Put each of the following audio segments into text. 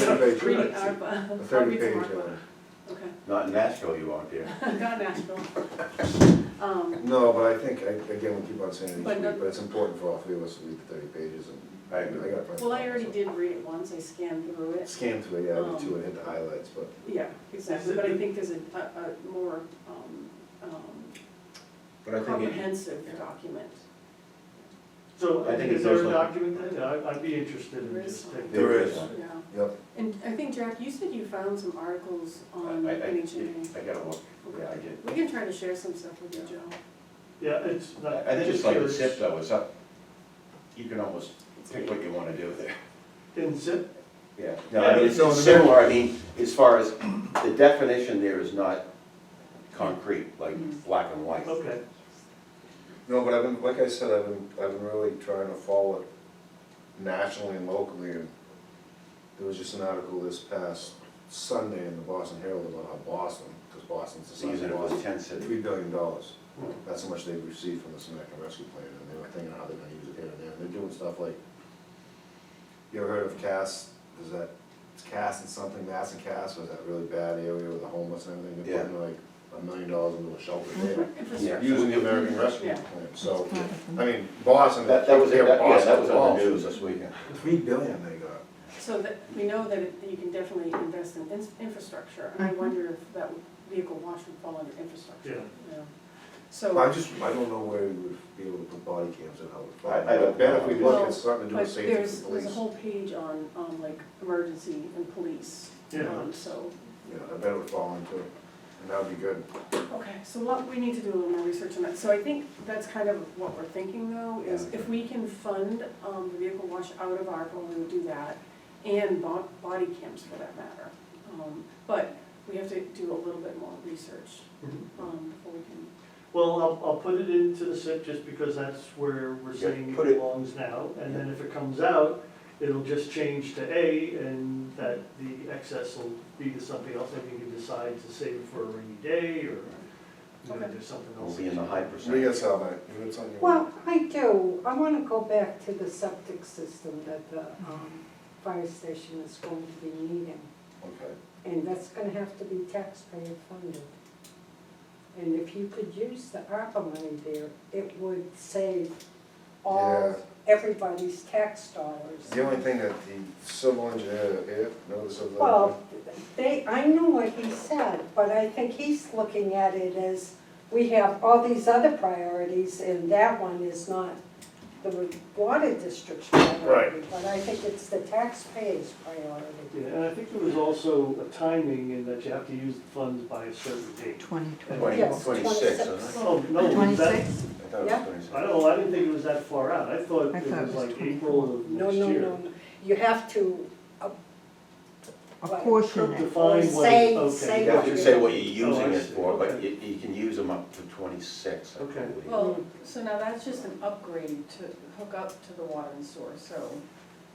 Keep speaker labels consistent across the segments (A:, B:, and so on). A: page,
B: Reading
A: a
B: ARPA. I'll
A: thirty
B: read
A: page
B: some
A: on
B: ARPA.
A: it.
B: Okay,
C: Not in Nashville, you won't, dear.
B: got Nashville. Um,
A: No, but I think, I, again, we keep on saying it each
B: But
A: week,
B: not-
A: but it's important for all three of us to read the thirty pages and.
C: I agree.
A: gotta find
B: Well, I
A: time,
B: already
A: so.
B: did read it once, I scanned through it.
A: Scanned through it, yeah, I
B: Um,
A: did too, and hit the highlights, but
B: Yeah, exactly, but I think there's a, a a more um, um,
C: But I think, it-
B: comprehensive document.
D: So
C: I think it's
D: is there a
C: also-
D: document that, I- I'd be interested
B: There
D: in
B: is
D: just
B: one.
D: taking.
C: There is.
B: Yeah,
A: Yep,
B: and I think, Jack, you said you found some articles on
C: I, I,
B: NHMA.
C: I gotta look, yeah, I did.
B: We can try to share some stuff with you, Joe.
D: Yeah, it's
C: I
D: not.
C: I think it's
D: just
C: like a
D: curious.
C: zip though, it's up, you can almost
B: It's
C: pick
B: like-
C: what you wanna do there.
D: In zip,
C: Yeah, no, I mean, it's
A: Yeah, it's-
C: similar, I mean, as far as, the definition there is not concrete, like
B: Mhm.
C: black and white.
D: okay,
A: no, but I've been, like I said, I've been, I've been really trying to follow it nationally and locally, and there was just an article this past Sunday in the Boston Herald about how Boston, because Boston's the
C: So
A: size
C: using
A: of
C: it
A: Boston,
C: was ten cities.
A: three billion dollars.
C: Hmm.
A: That's how much they've received from the Samaritan Rescue Plan, and they were thinking how they're gonna use it here and there, and they're doing stuff like, you ever heard of CAS, is that, it's CAS and something, Mass and CAS, was that really bad area with the homeless and everything, they're putting like a million dollars into a shelter there.
B: Infrastructure.
A: Using the American Rescue
B: Mm-hmm. Yeah.
A: Plan, so, I mean, Boston,
C: That, that was,
A: here,
C: that- yeah, that
A: Boston,
C: was on the
A: Boston.
C: news this weekend.
A: Three billion they got.
B: So that, we know that it- that you can definitely invest in ins- infrastructure,
A: Mm-hmm.
B: and I wonder if that would- vehicle wash would fall under infrastructure. Yeah.
A: I
B: So,
A: just, I don't know where we would be able to put body cams and how it would. fall.
C: I- I don't
A: bet if we
C: know.
A: look, it's something to do
B: but
A: with safety for
B: there's,
A: police.
B: there's a whole page on, on like emergency and police,
D: Yeah.
B: um, so.
A: Yeah, I bet it would fall into it, and that would be good.
B: Okay, so what, we need to do a little more research on that, so I think that's kind of what we're thinking though, is if we can fund, um, the vehicle wash out of ARPA, we would do that, and bo- body cams for that matter. Um, but we have to do a little bit more research,
D: Mhm.
B: um, before we can
D: well, I'll, I'll put it into the zip just because that's where we're
C: Yeah,
D: saying it
C: put it-
D: belongs now. And then if it comes out, it'll just change to A and that the excess will be to something else that you can decide to save for a rainy day or, you know,
B: Okay.
D: do something
C: We'll
D: else.
C: be in the high
A: We
C: percent.
A: got Sal, mate, you got something? you want?
E: Well, I do, I wanna go back to the septic system that the, um, fire station is going to be needing.
A: Okay,
E: And that's gonna have to be taxpayer funded. And if you could use the ARPA money there, it would save all,
A: Yeah.
E: everybody's tax dollars.
A: the only thing that the civil engineer here, notice of the.
E: Well, they, I know what he said, but I think he's looking at it as, we have all these other priorities, and that one is not the water district's priority. But I think it's the taxpayers' priority.
D: Yeah, and I think there was also a timing in that you have to use the funds by a certain date.
E: 20.
C: Twenty,
E: Yes,
C: twenty-six, isn't it?
E: 26.
D: Oh, no, was that,
F: Twenty-six?
C: I thought it
E: Yeah.
C: was twenty-six.
D: I don't know, I didn't think it was that far out. I thought
F: I
D: it
F: thought it
D: was
F: was
D: like
F: 24.
D: April of
E: No,
D: next
E: no,
D: year.
E: no, no. you have to
F: A
E: Right.
F: portion it.
D: Define what,
E: Say-
D: okay.
E: say
C: You have to say what you're
D: Oh, I
C: using it
D: see.
C: for, but
D: Okay.
C: you, you can use them up to twenty-six, I
D: Okay.
C: believe.
B: Well, so now that's just an upgrade to hook up to the water and sewer, so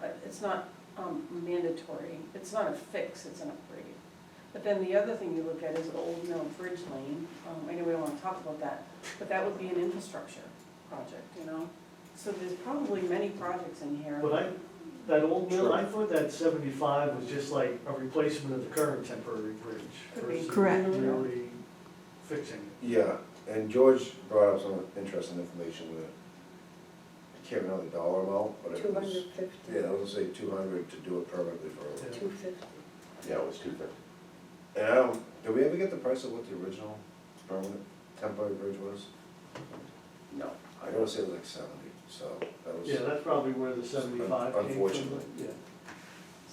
B: uh, it's not um, mandatory, it's not a fix, it's an upgrade. But then the other thing you look at is Old Mill Bridge Lane, Um, I know we don't wanna talk about that, but that would be an infrastructure project, you know? So there's probably many projects in here.
D: But I, that old mill, I thought that seventy-five was just like a replacement of the current temporary bridge.
B: Could be.
D: versus
F: Correct.
D: Really fixing it.
A: Yeah, and George brought up some interesting information with it. I can't remember the dollar amount, but
E: two
A: it was,
E: hundred fifty,
A: yeah, I was gonna say two hundred to do it permanently for.
D: Yeah.
E: two fifty.
C: Yeah, it was two fifty.
A: And I don't, did we ever get the price of what the original permanent temporary bridge was?
C: No.
A: I gotta say it was like seventy, so that was.
D: Yeah, that's probably where the seventy-five came from.
A: Unfortunately.
D: Yeah.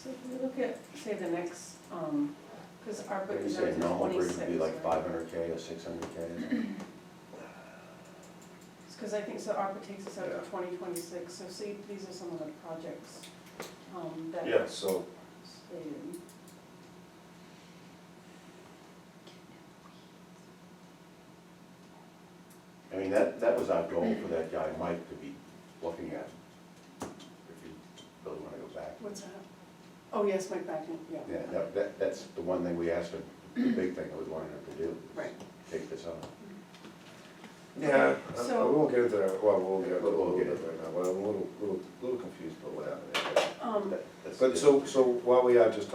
B: So if we look at, say, the next, um, cause our
C: What
B: book
C: do you
B: is
C: say,
B: out to
C: normal bridge
B: twenty-six,
C: would be like
B: right?
C: five hundred K or six hundred K or something?
B: Because I think, so ARPA takes us out
A: Yeah.
B: to twenty twenty-six, so see, these are some of the projects um, that
A: Yeah, so,
B: stated.
C: I mean, that, that was our goal for that guy, Mike, to be looking at. If you really wanna go back.
B: What's that? Oh, yes, Mike Backen, yeah.
C: Yeah, that, that, that's the one thing we asked him, the big thing that we wanted him to do. is
B: Right.
C: Take this on.
A: yeah, I- I-
B: So-
A: we won't get into that, well, we'll get into it a
C: We'll- we'll
A: little
C: get
A: bit right now, but I'm a little, little, little confused about what happened. there.
B: Um,
C: That- that's
A: But
C: the-
A: so, so while we are just